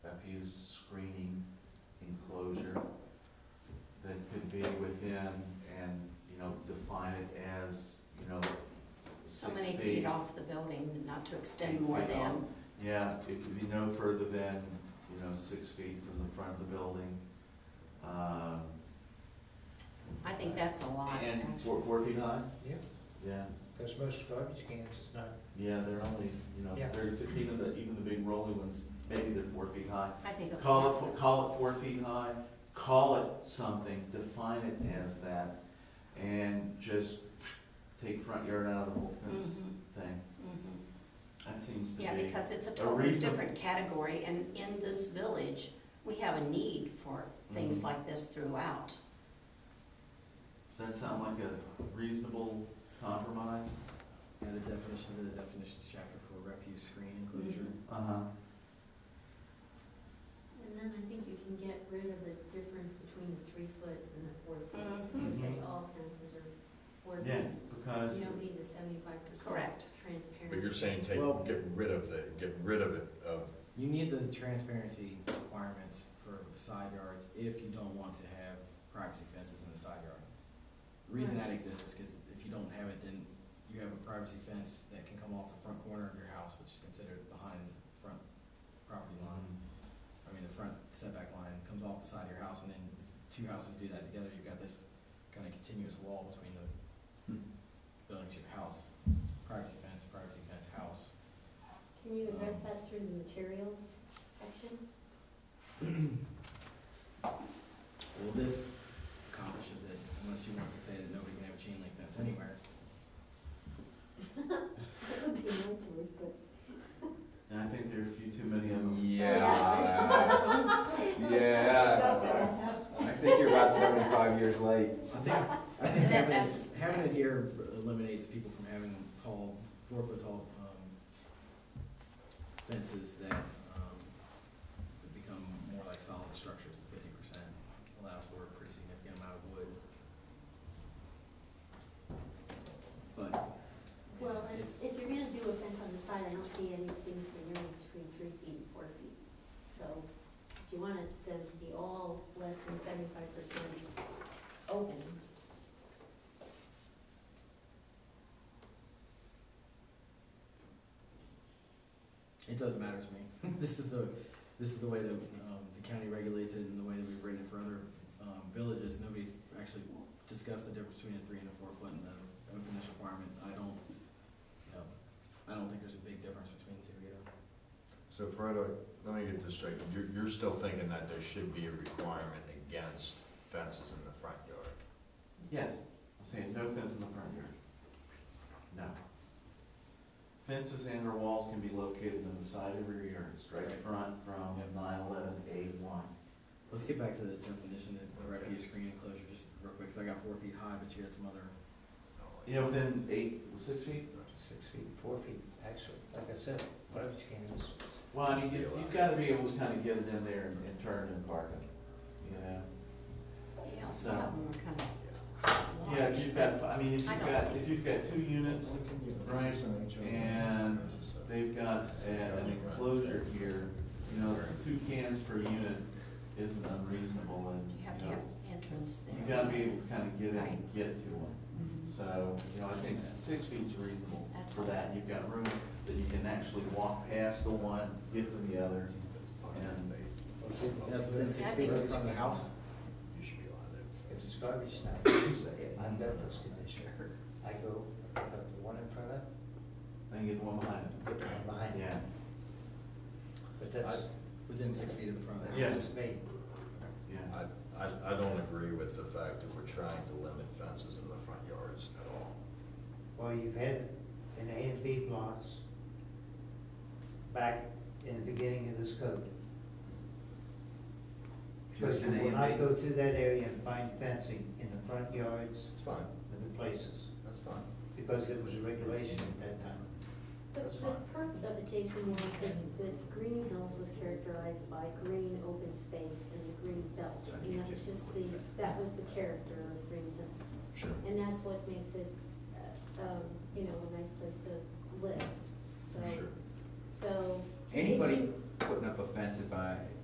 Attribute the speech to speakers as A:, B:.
A: to extend more
B: Feet
A: than,
B: Yeah, it could be no further than, you know, six feet from the front of the building. Um,
A: I think that's a lot,
B: And
A: actually.
B: four, four feet high?
C: Yeah,
B: Yeah,
C: because most garbage cans is not,
B: yeah, they're only, you know,
C: Yeah.
B: they're six, even the, even the big rolling ones, maybe they're four feet high.
A: I think. a
B: Call it,
A: four-
B: fo- call it four feet high, call it something, define it as that, and just take front yard out of the whole fence
A: Mhm,
B: thing.
A: mhm.
B: That seems to be.
A: Yeah, because it's a totally
B: reason-
A: different category, and in this village, we have a need for things
B: Mhm.
A: like this throughout.
B: Does that sound like a reasonable compromise?
D: And the definition, of the definitions chapter for refuse screen enclosure.
B: Uh-huh.
E: Mm-hmm. And then I think you can get rid of the difference between the three foot and the four foot. You
A: Mhm.
E: say all fences are four feet.
B: Yeah,
E: You
B: because,
E: don't need the seventy-five percent.
A: Correct.
E: Transparency.
F: But you're saying take,
D: Well-
F: get rid of the, get rid of it, of,
D: You need the transparency requirements for side yards if you don't want to have privacy fences in the side yard. The reason that exists is because if you don't have it, then you have a privacy fence that can come off the front corner of your house, which is considered behind the front property line.
B: um,
D: I mean, the front setback line comes off the side of your house, and then if two houses do that together, you've got this kind of continuous wall between the
B: Hmm.
D: buildings, your house, privacy fence, privacy fence, house.
E: Can you address that through the materials section?
D: Well, this accomplishes it, unless you want to say that nobody can have a chain link fence anywhere.
E: That would be my choice, but.
B: and I think there are a few too many of them.
G: Yeah, yeah. I think you're about seventy-five years late.
D: I think, I think
A: That-
D: having,
A: that's-
D: it- having it here eliminates people from having tall, four foot tall, um, fences that, um, would become more like solid structures, the fifty percent allows for a pretty significant amount of wood. But, I mean,
E: Well, and
D: it's,
E: if you're gonna do a fence on the side, I don't see any significant difference between three feet and four feet. So if you want it to be all less than seventy-five percent open,
D: It doesn't matter to me. This is the, this is the way that, um, the county regulates it and the way that we've written it for other, um, villages. Nobody's actually discussed the difference between a three and a four foot and the openness requirement. I don't, you know, I don't think there's a big difference between the two either.
F: so Fredo, let me get this straight, you're, you're still thinking that there should be a requirement against fences in the front yard?
B: Yes, I'm saying no fence in the front yard. No. Fences and or walls can be located on the side of your yard, straight
D: Right.
B: front from
D: Yep.
B: nine eleven A one.
D: Let's get back to the definition of the refuse screen enclosure just real quick, 'cause I got four feet high, but you had some other,
F: I don't like
B: You know, within eight, six feet?
C: six feet, four feet, actually, like I said, garbage cans.
B: Well, I mean, it's- you've gotta be able to kind of get it in there and- and turn it and park it, you know?
A: Yeah,
B: So-
A: some of them are kind of large.
B: Yeah, if you've got, I mean, if
A: I
B: you've
A: don't
B: got,
A: think-
B: if you've got two units, Right, and they've got a- an enclosure here, you know, two cans per unit isn't unreasonable and,
A: You have
B: you
A: to
B: know,
A: have entrance there.
B: you gotta be able to kind of get in and
A: Right.
B: get to them.
A: Mhm.
B: So, you know, I think s- six feet's reasonable
A: That's
B: for that. You've got room that you can actually walk past the one, get to the other. And
D: that's within
A: Yeah,
D: six
A: I
D: feet
A: think-
D: right from the house.
F: You should be allowed to.
C: If it's garbage night, I've got this condition. I go, I pick up the one in front of,
B: then get the one behind
C: get the one
B: it.
C: behind it,
B: Yeah.
C: but that's,
D: Within six feet of the front of the house.
B: Yeah.
C: that's just me.
B: Yeah.
F: I, I, I don't agree with the fact that we're trying to limit fences in the front yards at all.
C: Well, you've had it in A and B blocks back in the beginning of this code. Because
B: Just an
C: you
B: A
C: will
B: and B.
C: not go through that area and find fencing in the front yards
F: It's fine,
C: of the places,
F: that's fine.
C: because it was a regulation at that time.
E: The,
F: That's
E: the
F: fine.
E: purpose of it, Jason, was that, that Green Hills was characterized by green open space and the green belt.
F: So
E: And
F: you
E: that was
F: just-
E: just the, that was the character of Green Hills.
F: Sure.
E: And that's what makes it, uh, um, you know, a nice place to live, so.
F: Sure.
E: So.
G: Anybody putting up a fence if I,